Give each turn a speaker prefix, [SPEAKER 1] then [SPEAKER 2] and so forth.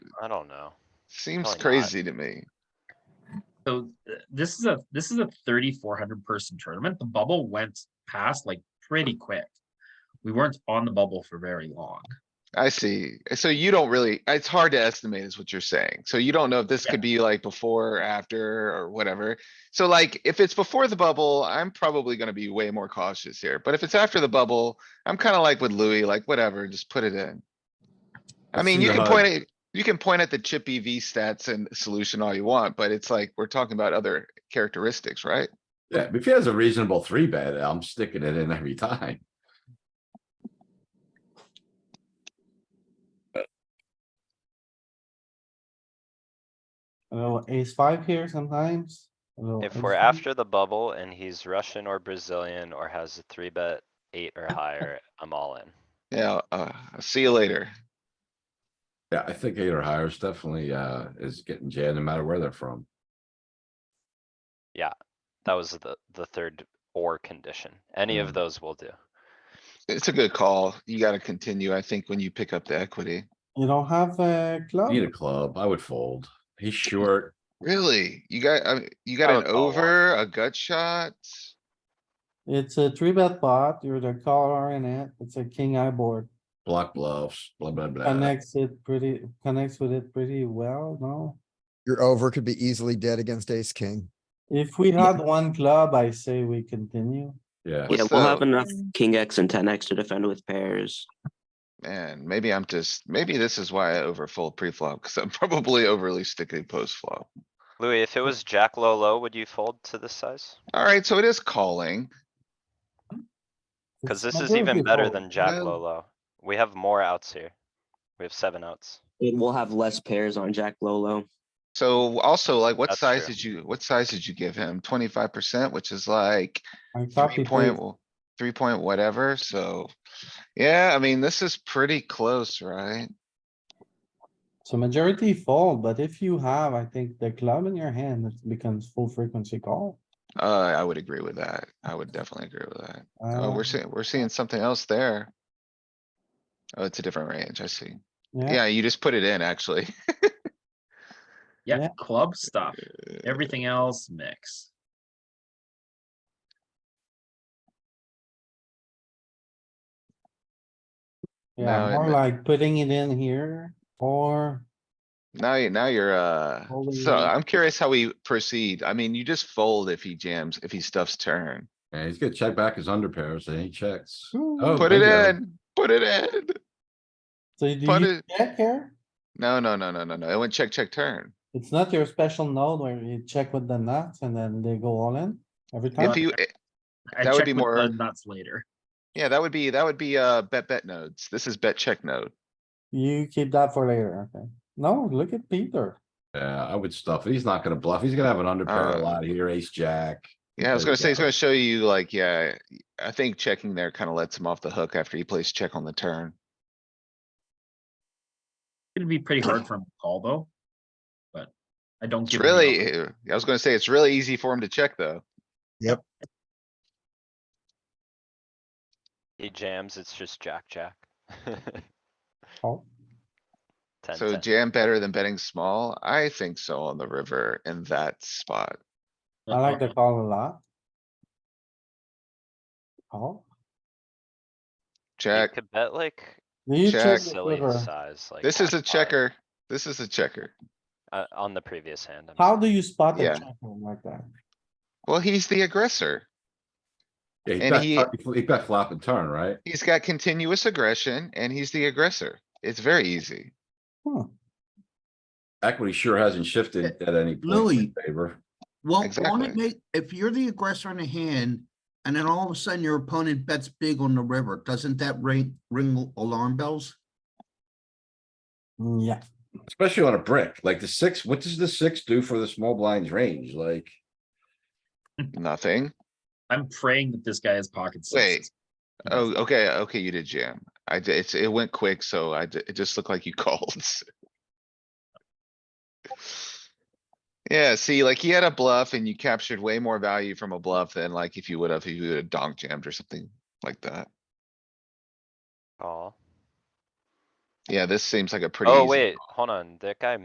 [SPEAKER 1] I don't know.
[SPEAKER 2] Seems
[SPEAKER 1] Probably not.
[SPEAKER 2] crazy to me.
[SPEAKER 3] So uh, this is a, this is a thirty-four hundred person tournament. The bubble went past like pretty quick. We weren't on the bubble for very long.
[SPEAKER 2] I see. So you don't really, it's hard to estimate is what you're saying. So you don't know if this
[SPEAKER 3] Yeah.
[SPEAKER 2] could be like before, or after, or whatever. So like, if it's before the bubble, I'm probably gonna be way more cautious here. But if it's after the bubble, I'm kinda like with Louis, like whatever, just put it in. I
[SPEAKER 4] Let's
[SPEAKER 2] mean, you
[SPEAKER 4] see the
[SPEAKER 2] can
[SPEAKER 4] HUD.
[SPEAKER 2] point at, you can point at the chip EV stats and solution all you want, but it's like, we're talking about other characteristics, right?
[SPEAKER 4] Yeah, if he has a reasonable three bet, I'm sticking it in every time.
[SPEAKER 5] A little ace five here sometimes. a little
[SPEAKER 1] If
[SPEAKER 5] ace
[SPEAKER 1] we're
[SPEAKER 5] ten.
[SPEAKER 1] after the bubble and he's Russian or Brazilian or has a three bet eight or higher, I'm all in.
[SPEAKER 2] Yeah, uh, see you later.
[SPEAKER 4] Yeah, I think eight or higher is definitely, uh, is getting jammed no matter where they're from.
[SPEAKER 1] That was the, the third or condition. Any
[SPEAKER 4] Mm.
[SPEAKER 2] Hmm.
[SPEAKER 1] of those will do.
[SPEAKER 2] It's a good call. You gotta continue, I think, when you pick up the equity.
[SPEAKER 5] You don't have a club?
[SPEAKER 4] Need a club, I would fold. He's short.
[SPEAKER 2] Really? You got, I mean, you
[SPEAKER 1] I
[SPEAKER 2] got an
[SPEAKER 1] would call one.
[SPEAKER 2] over, a gut shot?
[SPEAKER 5] It's a three bet pot. You're the caller in it. It's a king eye board.
[SPEAKER 4] block bluffs, blah, blah, blah.
[SPEAKER 5] Connects it pretty, connects with it pretty well, no?
[SPEAKER 6] Your over could be easily dead against ace king.
[SPEAKER 5] If we had one club, I say we continue.
[SPEAKER 4] Yeah,
[SPEAKER 2] What's
[SPEAKER 7] Yeah, we'll have
[SPEAKER 2] the-
[SPEAKER 7] enough king X and ten X to defend with pairs.
[SPEAKER 2] Man, maybe I'm just, maybe this is why I overfold pre-flop, cuz I'm probably overly sticky post-flop.
[SPEAKER 1] Louis, if it was Jack low low, would you fold to this size?
[SPEAKER 2] Alright, so it is calling.
[SPEAKER 1] Cause
[SPEAKER 5] It's
[SPEAKER 1] this is
[SPEAKER 5] never
[SPEAKER 1] even better
[SPEAKER 5] before.
[SPEAKER 1] than Jack
[SPEAKER 2] no.
[SPEAKER 1] low low. We have more outs here. We have seven outs.
[SPEAKER 7] It will have less pairs on Jack Lolo.
[SPEAKER 2] So also like, what
[SPEAKER 1] That's
[SPEAKER 2] size
[SPEAKER 1] true.
[SPEAKER 2] did you, what size did you give him? Twenty-five percent, which is like
[SPEAKER 5] I copy
[SPEAKER 2] three point,
[SPEAKER 5] paste.
[SPEAKER 2] w- three point whatever, so. Yeah, I mean, this is pretty close, right?
[SPEAKER 5] So majority fold, but if you have, I think the club in your hand, it becomes full frequency call.
[SPEAKER 2] Uh, I would agree with that. I would definitely agree with that. Oh,
[SPEAKER 5] Uh,
[SPEAKER 2] we're seeing, we're seeing something else there. Oh, it's a different range, I see.
[SPEAKER 5] Yeah,
[SPEAKER 2] Yeah, you just put it in, actually.
[SPEAKER 3] Yeah,
[SPEAKER 5] Yeah.
[SPEAKER 3] club stuff, everything else mix.
[SPEAKER 2] now it
[SPEAKER 5] yeah, more
[SPEAKER 2] ma-
[SPEAKER 5] like putting it in here or
[SPEAKER 2] Now, you now you're, uh,
[SPEAKER 5] Holding
[SPEAKER 2] so
[SPEAKER 5] it.
[SPEAKER 2] I'm curious how we proceed. I mean, you just fold if he jams, if he stuffs turn.
[SPEAKER 4] and he's gonna check back his under pairs and he checks.
[SPEAKER 5] Ooh.
[SPEAKER 4] Oh,
[SPEAKER 2] Put it
[SPEAKER 4] bingo.
[SPEAKER 2] in, put it in.
[SPEAKER 5] so do
[SPEAKER 2] But
[SPEAKER 5] you
[SPEAKER 2] it-
[SPEAKER 5] check here?
[SPEAKER 2] No, no, no, no, no, no. It went check, check, turn.
[SPEAKER 5] It's not your special node where you check with the nuts and then they go all in every time?
[SPEAKER 4] Oh.
[SPEAKER 2] If you, eh,
[SPEAKER 3] I
[SPEAKER 2] That would
[SPEAKER 3] check
[SPEAKER 2] be
[SPEAKER 3] with
[SPEAKER 2] more-
[SPEAKER 3] the nuts later.
[SPEAKER 2] yeah, that would be, that would be, uh, bet, bet nodes. This is bet check node.
[SPEAKER 5] You keep that for later, okay? No, look at Peter.
[SPEAKER 4] Yeah, I would stuff. it. He's not gonna bluff. He's gonna have an under pair a
[SPEAKER 2] Uh,
[SPEAKER 4] lot here, ace, jack.
[SPEAKER 2] Yeah, I was
[SPEAKER 4] There you
[SPEAKER 2] gonna say, it's
[SPEAKER 4] go.
[SPEAKER 2] gonna show you like, yeah, I think checking there kinda lets him off the hook after he plays check on the turn.
[SPEAKER 3] It'd be pretty hard for him to call though. But I don't
[SPEAKER 2] It's
[SPEAKER 3] give. him the
[SPEAKER 2] really,
[SPEAKER 3] option.
[SPEAKER 2] eh, I was gonna say, it's really easy for him to check, though.
[SPEAKER 1] He jams, it's just Jack, Jack.
[SPEAKER 5] Oh,
[SPEAKER 1] Ten,
[SPEAKER 2] So
[SPEAKER 1] ten.
[SPEAKER 2] jam better than betting small? I think so on the river in that spot.
[SPEAKER 5] I like
[SPEAKER 2] Uh-huh.
[SPEAKER 5] the call a lot. Oh,
[SPEAKER 1] You
[SPEAKER 2] Check.
[SPEAKER 1] could bet like
[SPEAKER 5] do you
[SPEAKER 2] Check.
[SPEAKER 5] check with
[SPEAKER 1] silly
[SPEAKER 5] river?
[SPEAKER 1] size, like.
[SPEAKER 2] This is a
[SPEAKER 1] jack five,
[SPEAKER 2] checker. This is a checker.
[SPEAKER 1] Uh, on the previous hand. I'm
[SPEAKER 5] How
[SPEAKER 1] sorry.
[SPEAKER 5] do you spot a
[SPEAKER 2] Yeah.
[SPEAKER 5] check like that?
[SPEAKER 2] Well, he's the aggressor.
[SPEAKER 4] Yeah,
[SPEAKER 2] And
[SPEAKER 4] he
[SPEAKER 2] he-
[SPEAKER 4] bet flop- he bet flop and turn, right?
[SPEAKER 2] He's got continuous aggression and he's the aggressor. It's very easy.
[SPEAKER 5] Huh,
[SPEAKER 4] Equity sure hasn't shifted at any point
[SPEAKER 8] Louis.
[SPEAKER 4] in favor.
[SPEAKER 8] Well, won't
[SPEAKER 2] Exactly.
[SPEAKER 8] it make, if you're the aggressor in a hand, and then all of a sudden your opponent bets big on the river, doesn't that ring, ring alarm bells?
[SPEAKER 5] yeah.
[SPEAKER 4] Especially on a brick, like the six, what does the six do for the small blinds range? Like,
[SPEAKER 2] Nothing.
[SPEAKER 3] I'm praying that this guy has pocket
[SPEAKER 2] Wait.
[SPEAKER 3] sixes.
[SPEAKER 2] Oh, okay, okay, you did jam. I, d- it's, it went quick, so I, d- it just looked like you called. Yeah, see, like he had a bluff and you captured way more value from a bluff than like if you would have, if you would have donk jammed or something like that.
[SPEAKER 1] Call.
[SPEAKER 2] Yeah, this seems like a pretty.
[SPEAKER 1] Oh,
[SPEAKER 2] easy
[SPEAKER 1] wait, Oh, hold on, that guy